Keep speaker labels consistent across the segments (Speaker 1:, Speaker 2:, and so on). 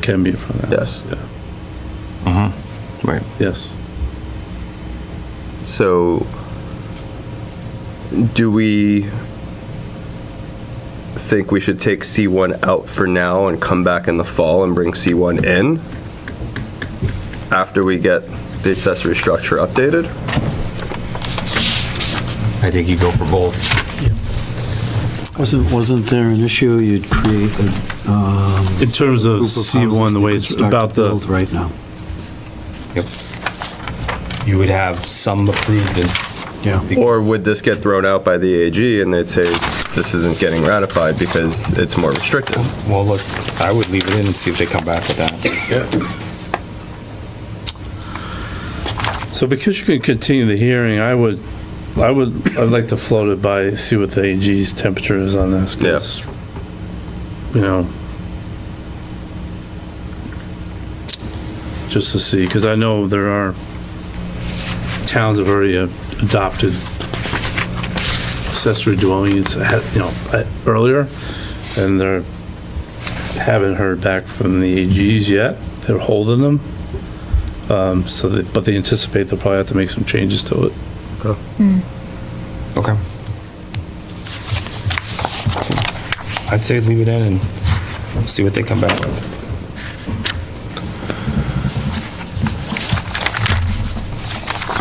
Speaker 1: can be in front of the house. Yes.
Speaker 2: Mm-hmm.
Speaker 3: Right.
Speaker 1: Yes.
Speaker 3: So, do we think we should take C1 out for now and come back in the fall and bring C1 in after we get the accessory structure updated?
Speaker 4: I think you go for both.
Speaker 2: Wasn't, wasn't there an issue you'd create a um,
Speaker 1: In terms of
Speaker 2: group of houses
Speaker 1: C1, the
Speaker 2: that
Speaker 1: way
Speaker 2: could
Speaker 1: it's
Speaker 2: start to
Speaker 1: about the,
Speaker 2: build Right now.
Speaker 4: You would have some approved and s-
Speaker 2: Yeah.
Speaker 3: Or would this get thrown out by the AG and they'd say, this isn't getting ratified because it's more restrictive?
Speaker 4: Well, look, I would leave it in and see if they come back with that.
Speaker 1: so because you can continue the hearing, I would, I would, I'd like to float it by, see what the AG's temperature is on this. 'cause, You know. Just to see, because I know there are towns have already uh, adopted accessory dwelling units, ahead- you know, uh, earlier, and they're, haven't heard back from the AGs yet. They're holding them. Um, So, they- but they anticipate they'll probably have to make some changes to it.
Speaker 4: Okay. I'd say leave it in and see what they come back with.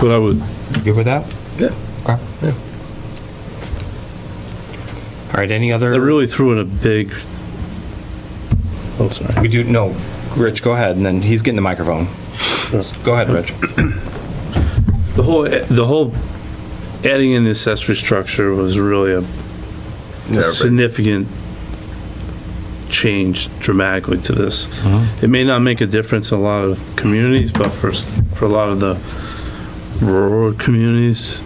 Speaker 1: But I would,
Speaker 4: You Good with that?
Speaker 3: Yeah.
Speaker 4: Okay.
Speaker 3: Yeah.
Speaker 4: All right, any
Speaker 1: I
Speaker 4: other,
Speaker 1: really threw in a big, oh, sorry.
Speaker 4: we do, no, Rich, go ahead, and then he's getting the microphone. Go ahead, Rich.
Speaker 1: The whole, the whole adding in the accessory structure was really a
Speaker 3: Yeah, right.
Speaker 1: significant change dramatically to this. It may not make a difference in a lot of communities, but for, s- for a lot of the rural communities,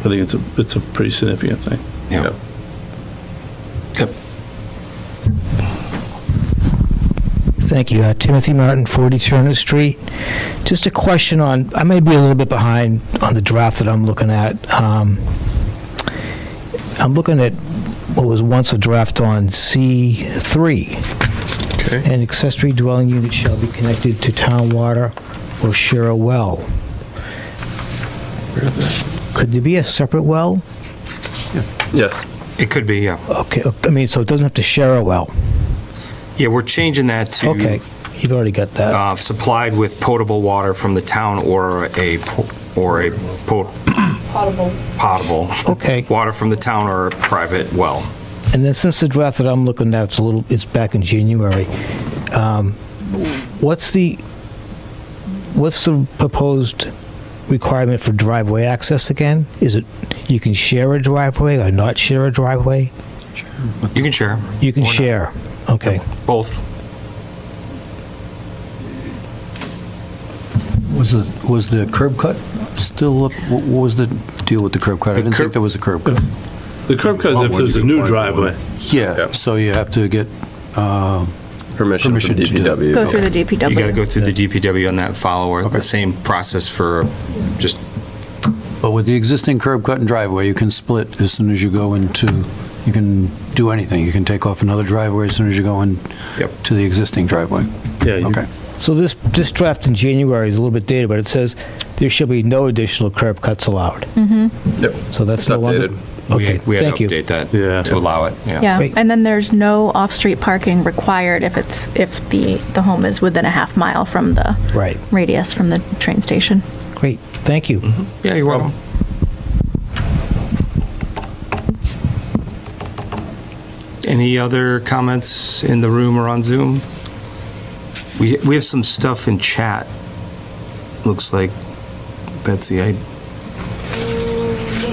Speaker 1: I think it's a, it's a pretty significant thing.
Speaker 4: Yeah. Yep.
Speaker 5: Thank you. Uh, Timothy Martin, 40 Turner Street. Just a question on, I may be a little bit behind on the draft that I'm looking at. Um, I'm looking at what was once a draft on C3.
Speaker 3: Okay.
Speaker 5: An accessory dwelling unit shall be connected to town water or share a well. Could there be a separate well?
Speaker 3: Yes.
Speaker 4: It could be, yeah.
Speaker 5: Okay, uh, I mean, so it doesn't have to share a well.
Speaker 4: Yeah, we're changing that to.
Speaker 5: Okay, you've already got that.
Speaker 4: uh, supplied with potable water from the town or a, po- or a po-
Speaker 6: potable.
Speaker 4: potable.
Speaker 5: Okay.
Speaker 4: Water from the town or a private well.
Speaker 5: And then since the draft that I'm looking at, it's a little, it's back in January, um, what's the, what's the proposed requirement for driveway access again? Is it, you can share a driveway or not share a driveway?
Speaker 4: You can share,
Speaker 5: You can
Speaker 4: Or not.
Speaker 5: share, okay.
Speaker 4: both.
Speaker 2: Was the, was the curb cut still, up? what what was the deal with the curb cut? I
Speaker 4: The
Speaker 2: didn't
Speaker 4: curb-
Speaker 2: think there was a curb cut.
Speaker 1: The curb cuts, if there's a new driveway,
Speaker 2: Yeah, so you have to get, uh,
Speaker 3: Permission from
Speaker 2: Permission to do that.
Speaker 3: DPW.
Speaker 6: Go through the
Speaker 4: You got to
Speaker 6: DPW.
Speaker 4: go through the DPW on that follower, the same process for just,
Speaker 2: but with the existing curb cut and driveway, you can split as soon as you go into, you can do anything. You can take off another driveway as soon as you go in
Speaker 4: Yep.
Speaker 2: to the existing driveway.
Speaker 1: yeah, you-
Speaker 2: Okay.
Speaker 5: So this, this draft in January is a little bit dated, but it says there shall be no additional curb cuts allowed.
Speaker 3: Yep.
Speaker 5: So that's
Speaker 3: It's
Speaker 5: no longer.
Speaker 3: updated.
Speaker 4: Hmm. we
Speaker 5: Okay,
Speaker 4: had we had
Speaker 5: thank
Speaker 4: to
Speaker 5: you.
Speaker 4: update that
Speaker 1: Yeah.
Speaker 4: to allow it, yeah.
Speaker 6: Yeah,
Speaker 5: Wait.
Speaker 6: and then there's no off-street parking required if it's, if the, the home is within a half mile from the
Speaker 5: Right,
Speaker 6: radius from the train station.
Speaker 5: great, thank you.
Speaker 4: Yeah, you're welcome. Any other comments in the room or on Zoom? We, we have some stuff in chat, looks like, Betsy, I,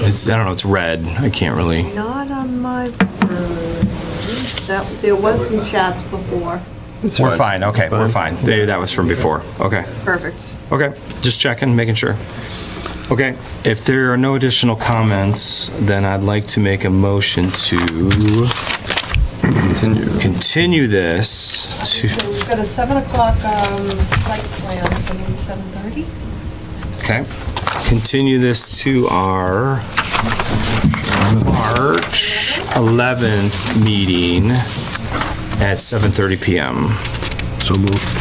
Speaker 4: it's, I don't know, it's red, I can't really.
Speaker 7: Not on my version. That, there was some chats before.
Speaker 4: We're fine, okay, we're fine. Maybe that was from before, okay.
Speaker 7: Perfect.
Speaker 4: Okay, just checking, making sure. Okay, if there are no additional comments, then I'd like to make a motion to
Speaker 3: Continue.
Speaker 4: continue this to,
Speaker 7: So we've got a 7 o'clock um, site plan, so maybe 7:30?
Speaker 4: okay, continue this to our March 11th meeting at 7:30 PM.
Speaker 2: So moved.